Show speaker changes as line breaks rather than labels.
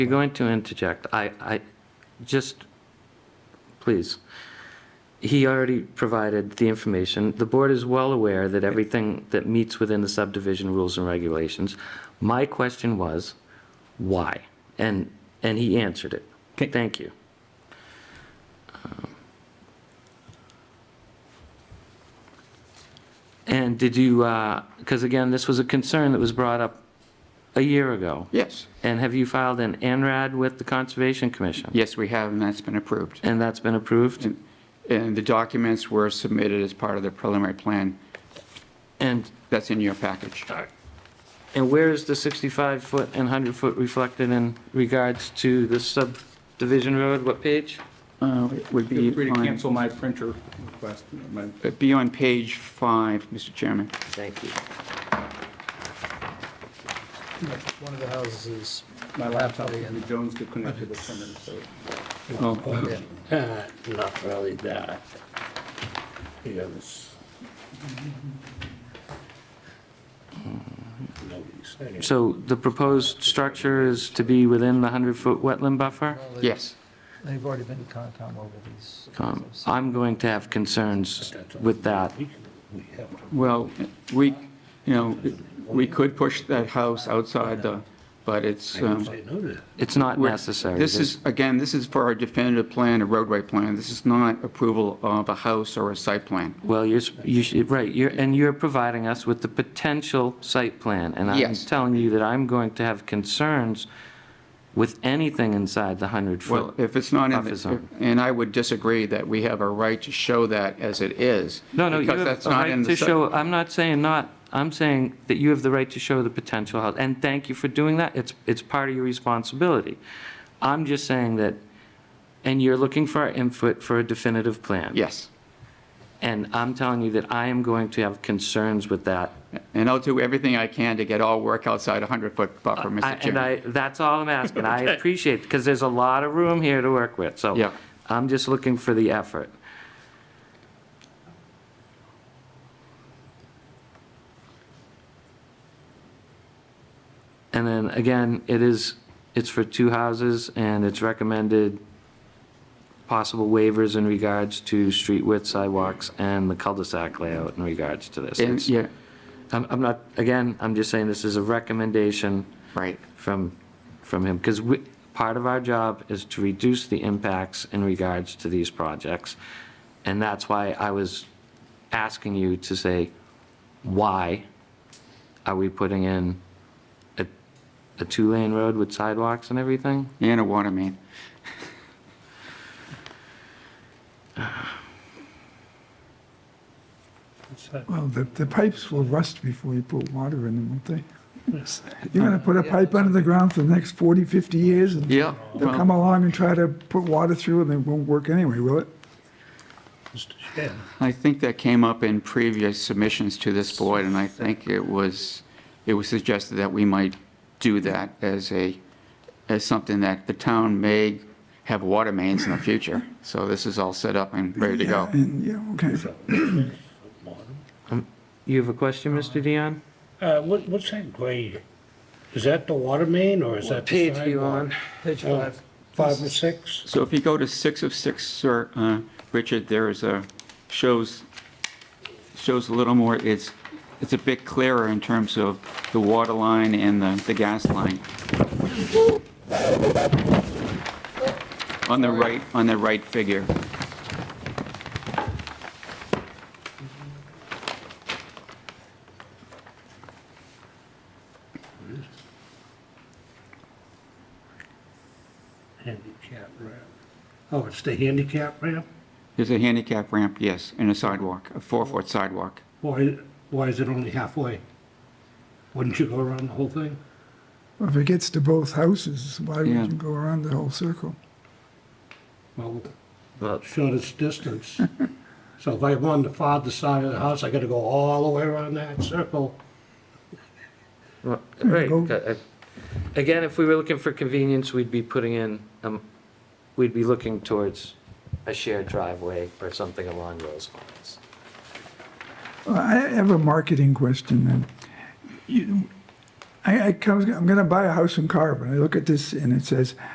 you're going to interject, I, I, just, please. He already provided the information. The board is well aware that everything that meets within the subdivision rules and regulations. My question was, why? And, and he answered it.
Okay.
Thank you. Um, And did you, because again, this was a concern that was brought up a year ago.
Yes,
And have you filed an NRAD with the Conservation Commission?
yes, we have, and that's been approved.
And that's been approved?
And- And the documents were submitted as part of the preliminary plan.
And,
That's in your package.
Uh,
and where is the 65-foot and 100-foot reflected in regards to the subdivision road? What page?
Uh, it Would
Feel free
be
to
on,
cancel my printer request. My-
it'd be on page five, Mr. Chairman.
Thank you.
One of the houses is,
My laptop, the Jones could connect to the printer, so.
Oh,
Uh, Not really that. Yes. Nobody's saying.
So the proposed structure is to be within the 100-foot wetland buffer?
Yes,
they've already been to Concom over these.
Um, I'm going to have concerns with that.
We can- we have to-
well, we, you know, we could push that house outside the, but it's.
I can
um,
say no to that.
It's not
We're-
necessary.
This is, again, this is for our definitive plan, a roadway plan. This is not approval of a house or a site plan.
Well, you're, s- you should, right, you're, and you're providing us with the potential site plan. And I'm
Yes.
telling you that I'm going to have concerns with anything inside the
Well,
100-foot.
if it's not, in
Buffer
the
zone.
and I would disagree that we have a right to show that as it is.
No, no, you
because
have
that's
a
not in
right
the
to
sub-
show, I'm not saying not, I'm saying that you have the right to show the potential house. And thank you for doing that, it's, it's part of your responsibility. I'm just saying that, and you're looking for our input for a definitive plan.
Yes,
And I'm telling you that I am going to have concerns with that
and I'll do everything I can to get all work outside a 100-foot buffer,
I-
Mr.
And
Chairman.
I, that's all I'm asking. I appreciate, because there's a lot of room here to work with, so.
Yeah.
I'm just looking for the effort. And then, again, it is, it's for two houses, and it's recommended possible waivers in regards to street width, sidewalks, and the cul-de-sac layout in regards to this.
And,
It's-
yeah,
I'm, I'm not, again, I'm just saying this is a recommendation
right,
from, from him, because we, part of our job is to reduce the impacts in regards to these projects. And that's why I was asking you to say, why are we putting in a, a two-lane road with sidewalks and everything?
and a water main.
What's that?
Well, the, the pipes will rust before you put water in them, won't they? You're gonna put a pipe under the ground for the next 40, 50 years, and
Yeah,
they'll
well-
come along and try to put water through, and it won't work anyway, will it?
Mr. Chair,
I think that came up in previous submissions to this board, and I think it was, it was suggested that we might do that as a, as something that the town may have water mains in the future. So this is all set up and ready to go.
And, yeah, okay.
You have a question, Mr. Dion?
uh, what, what's that grade? Is that the water main or is that the sidewalk? Uh,
Page five.
Five or six?
So if you go to six of six, sir, uh, Richard, there is a, shows, shows a little more, it's, it's a bit clearer in terms of the water line and the, the gas line. On the right, on the right figure.
Handicap ramp. Oh, it's the handicap ramp?
There's a handicap ramp, yes, and a sidewalk, a four-foot sidewalk.
Why, why is it only halfway? Wouldn't you go around the whole thing?
Well, If it gets to both houses, why would
Yeah.
you go around the whole circle?
Well, the shortest distance. So if I want the farther side of the house, I gotta go all the way around that circle.
Well,
you
Right.
go.
uh, Again, if we were looking for convenience, we'd be putting in, um, we'd be looking towards a shared driveway or something along those lines.
Well, I have a marketing question then. You- I, I, I was- I'm gonna buy a house in Carver, and I look at this, and it says,